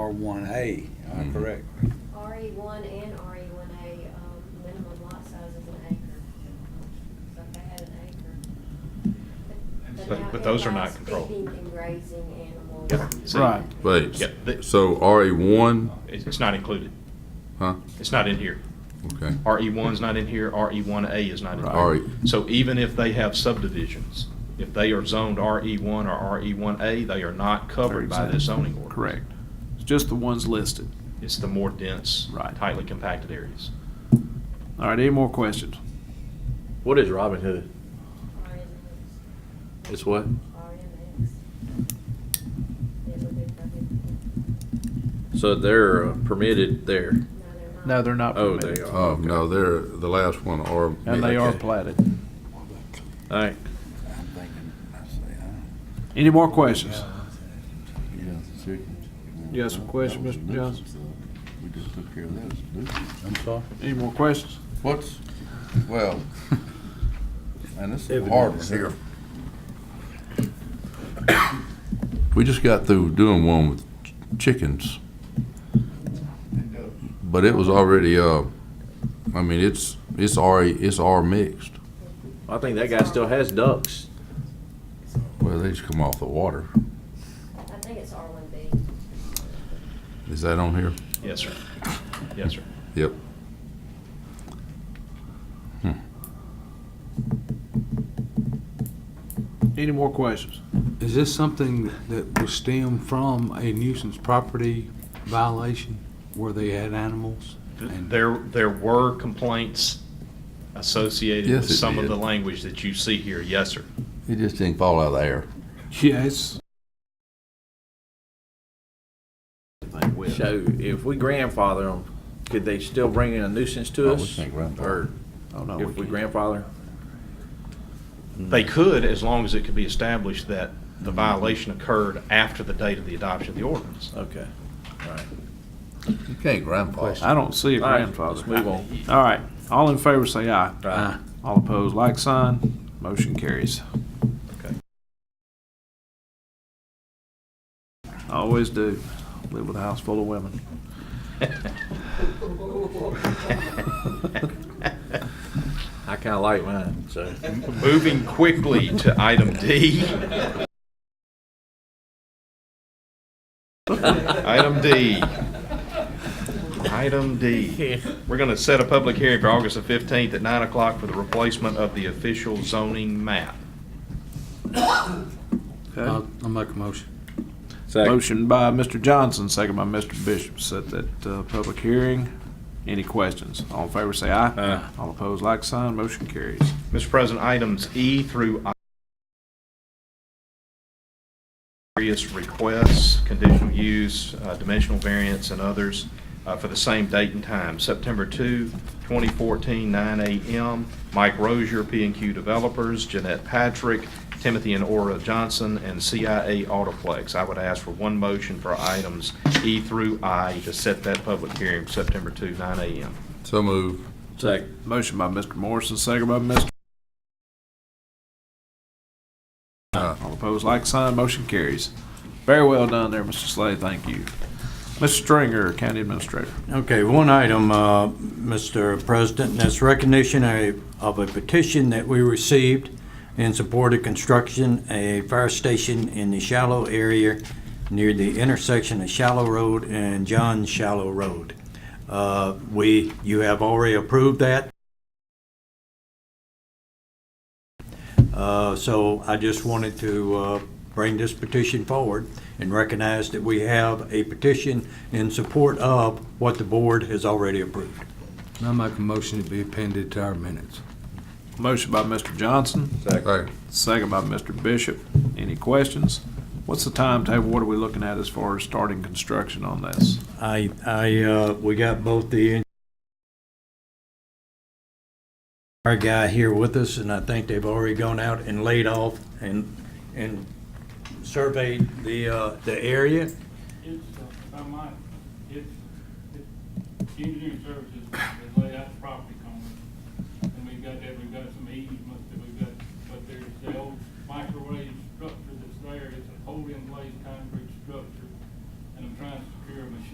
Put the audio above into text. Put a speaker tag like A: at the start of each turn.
A: R1A, am I
B: Mhm.
A: correct?
C: RE one and RE one A, um, minimum lot size is an acre. So if they had an acre.
D: But-
C: now
D: but those are not
C: it allows
D: controlled.
C: Feeding and raising animals.
D: Yeah, see.
E: Right.
B: Wait.
D: Yeah, the-
B: So RA one,
D: It's it's not included.
B: huh?
D: It's not in here.
B: Okay.
D: RE one's not in here, RE one A is not in
B: Right.
D: here.
B: All right.
D: So even if they have subdivisions, if they are zoned RE one or RE one A, they are not covered by this zoning ordinance.
E: Correct. It's just the ones listed.
D: It's the more dense,
E: Right.
D: tightly compacted areas.
E: All right, any more questions?
F: What is Robin Hood?
C: RNX,
F: It's what?
C: RNX. It would be prohibited.
F: So they're uh, permitted there.
C: No, they're not.
E: No, they're not
F: Oh, they
E: permitted.
F: are.
B: Oh, no, they're, the last one are.
E: And they are
B: okay.
E: platted.
F: All right.
A: I'm thinking, I say,
E: Any more questions?
G: You got the chickens.
E: You got some question,
G: That was a
E: Mr.
G: nuisance,
E: Johnson?
G: though. We just took care of that. It's a nuisance.
A: I'm sorry?
E: Any more questions?
G: What's, well, and this is a hard one here.
B: We just got through doing one with ch- chickens. But it was already, uh, I mean, it's, it's R, it's R mixed.
F: I think that guy still has ducks.
B: Well, they just come off the water.
C: I think it's R one B.
B: Is that on here?
D: Yes, sir. Yes, sir.
B: Yep.
E: Any more questions?
H: Is this something that will stem from a nuisance property violation where they had animals? And
D: There, there were complaints associated
B: Yes,
D: with
B: it
D: some of
B: did.
D: the language that you see here. Yes, sir.
B: It just didn't fall out of the air.
H: Yes.
F: So if we grandfather them, could they still bring in a nuisance to
B: Oh, we
F: us?
B: can't grandfather.
F: Or
E: Oh, no,
F: if we
E: we can't.
F: grandfather?
D: They could, as long as it could be established that the violation occurred after the date of the adoption of the ordinance.
F: Okay.
B: You can't grandfather.
E: I don't see a
F: All right,
E: grandfather.
F: Let's move on.
E: All right, all in favor say aye.
H: Uh,
F: Aye.
E: All opposed, like sign. Motion carries.
D: Okay.
E: Always do. Live with a house full of women.
F: I kinda like mine, so.
D: Moving quickly to item D. Item D. Item D. We're going to set a public hearing for August the 15th at 9 o'clock for the replacement of the official zoning map.
H: I'll I'll make a motion.
E: Motion by Mr. Johnson, second by Mr. Bishop, set that uh, public hearing. Any questions? All in favor, say aye.
F: Aye.
E: All opposed, like sign, motion carries.
D: Mr. President, items E through I. Various requests, conditional use, uh, dimensional variance, and others uh, for the same date and time, September 2, 2014, 9 a.m. Mike Rozier, p and Q Developers, Jeanette Patrick, Timothy and Aura Johnson, and CIA Autoplex. I would ask for one motion for items E through I to set that public hearing, for September 2, 9 a.m.
B: So move.
F: Second.
E: Motion by Mr. Morrison, second by Mr.
B: Aye.
E: All opposed, like sign, motion carries. Very well done there, Mr. Slade, thank you. Mr. Stringer, County Administrator.
I: Okay, one item, uh, Mr. President, and that's recognition of- of a petition that we received in support of construction, a fire station in the Shallow area near the intersection of Shallow Road and John Shallow Road. Uh, We, you have already approved that. Uh, So I just wanted to uh, bring this petition forward and recognize that we have a petition in support of what the board has already approved.
H: I'll make a motion to be appended to our minutes.
E: Motion by Mr. Johnson,
B: Second.
E: second by Mr. Bishop. Any questions? What's the timetable, what are we looking at as far as starting construction on this?
I: I, I, uh, we got both the our guy here with us, and I think they've already gone out and laid off and, and surveyed the, uh, the area.
J: It's, uh, I might, it's, it's engineering services, they lay out the property coming, and we've got that, we've got some easements